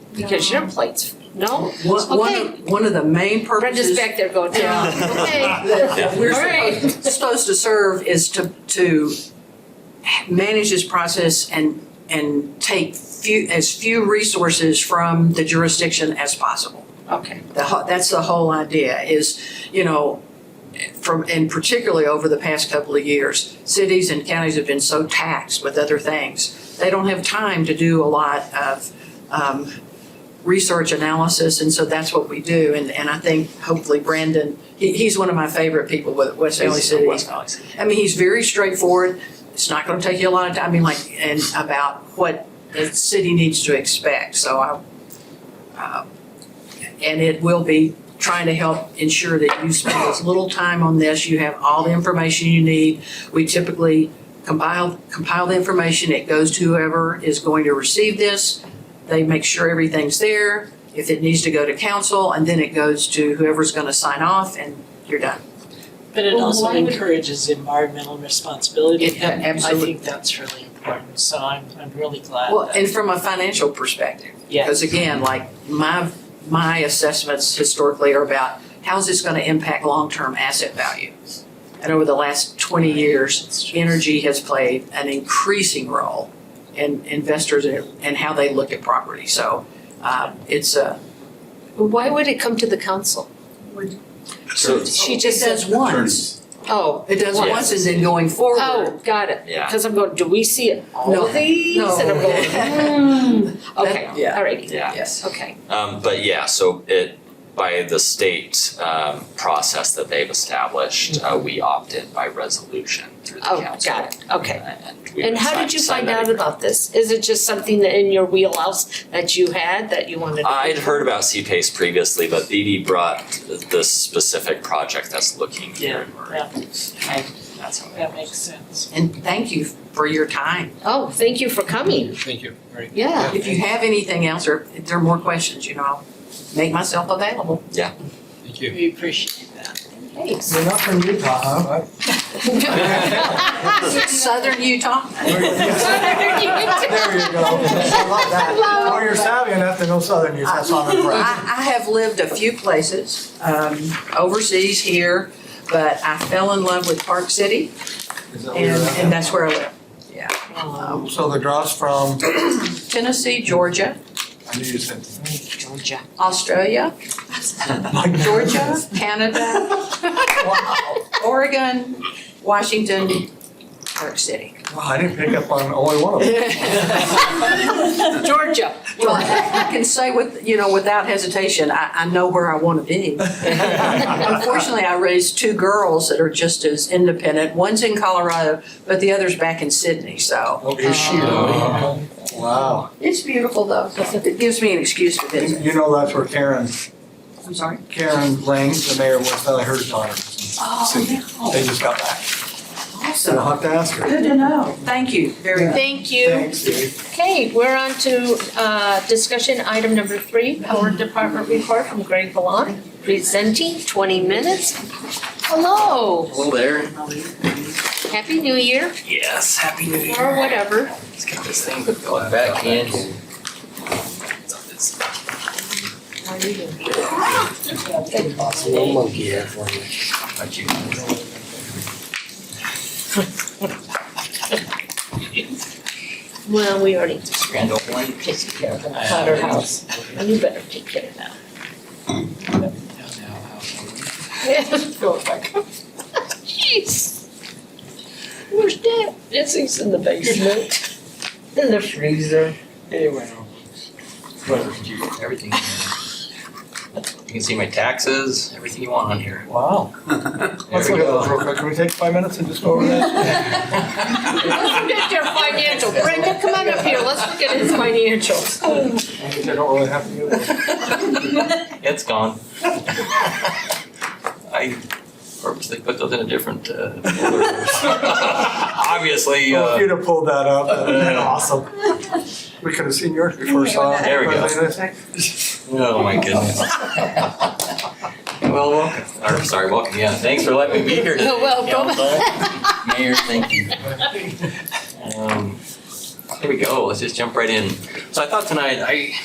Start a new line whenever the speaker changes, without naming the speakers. because your plate's, no?
One, one
Okay.
of, one of the main
Brenda's
purposes
back there going, yeah, okay.
that we're
All right.
supposed, supposed to serve is to, to manage this process and, and take few, as few resources from the jurisdiction as possible.
Okay,
The, ho- that's the whole idea is, you know, from, and particularly over the past couple of years, cities and counties have been so taxed with other things. They don't have time to do a lot of, um, research analysis, and so that's what we do. And, and I think hopefully Brandon, he, he's one of my favorite people with West Valley City. I mean, he's very straightforward. It's not gonna take you a lot of time, I mean, like, and about what the city needs to expect, so I, uh, and it will be trying to help ensure that you spend as little time on this, you have all the information you need. We typically compile, compile the information, it goes to whoever is going to receive this. They make sure everything's there, if it needs to go to council, and then it goes to whoever's gonna sign off, and you're done.
But it
Well,
also
why would-
encourages environmental responsibility.
It-
and
absolutely.
I think that's really important, so I'm, I'm really glad
Well,
that,
and from a financial perspective.
yeah.
Because again, like my, my assessments historically are about how's this gonna impact long-term asset value? And over the last twenty years, energy has played an increasing role in investors and, and how they look at property. So, uh, it's a,
why would it come to the council?
So,
She
it
just
does
says,
once.
oh,
It does
Once.
once and then going forward.
oh, got it.
Yeah.
Cause I'm going, do we see all
No.
of these?
No.
And I'm going, hmm, okay,
That- yeah.
alrighty,
yeah.
Yes.
okay.
Um, but yeah, so it by the state um, process that they've established, uh, we opt in by resolution through the
Oh,
council.
got it, okay.
And, we
And how
sign-
did you
sign
find
that
out about this? Is it just something that in your wheelhouse that you had that you wanted to?
Uh, I'd heard about CPACE previously, but BD brought this specific project that's looking here in Murray.
Yeah,
And that's how
that makes sense.
And thank you for your time.
Oh, thank you for coming,
Thank you, very
yeah.
If you have anything else or if there are more questions, you know, I'll make myself available.
Thank you.
We appreciate that.
Thanks.
You're not from Utah, huh? Right.
Southern Utah.
There you go. I love that. Oh, you're savvy enough to know Southern Utah, that's all I'm impressed.
I, I have lived a few places, um, overseas here, but I fell in love with Park City
Is that
and,
where you're at?
and that's where I live.
Um,
So the draw's from,
Tennessee, Georgia,
I knew you said.
Georgia.
Australia,
My
Georgia,
goodness.
Canada,
Wow.
Oregon, Washington, Park City.
Wow, I didn't pick up on only one of them. Oh.
Georgia.
Well, I I can say with, you know, without hesitation, I, I know where I want to be. Unfortunately, I raised two girls that are just as independent. One's in Colorado, but the other's back in Sydney, so.
Oh, is she
Oh.
really? Wow.
It's beautiful though. It gives me an excuse to
You
visit.
you know that's where Karen,
I'm sorry.
Karen Lang, the mayor of West Valley, her daughter.
Oh, no.
They just got back. So I'll
Awesome.
have to ask her.
Good to know. Thank you very much.
Thank you.
Thanks, Dave.
Okay, we're on to uh, discussion item number three, Power Department Report from Greg Ballant, presenting 20 minutes. Hello,
Hello there.
Happy New Year,
Yes, happy new year.
or whatever.
Let's get this thing going back in.
How are you doing?
Little monkey here for you.
Well, we already
Grand old one. Uh,
took care of the House. And you better take care of that. Go back. Jeez. Where's Dad? Yes, he's in the basement, in the freezer.
Anyway.
Everything. You can see my taxes, everything you want on here.
Wow. Let's look at those real quick. Can we take five minutes and just go over that?
Let's look at your financial. Brenda, come on up here. Let's look at his financials.
I don't really have to do that.
It's gone. I purposely put those in a different uh, folder. Obviously,
Well, if
uh,
you'd have pulled that up, that would have been awesome. We could have seen yours before we saw it.
There we go. oh my goodness. Well, welcome, or sorry, welcome, yeah, thanks for letting me be here today.
Welcome.
Council. Mayor, thank you. Um, Here we go, let's just jump right in. So I thought tonight, I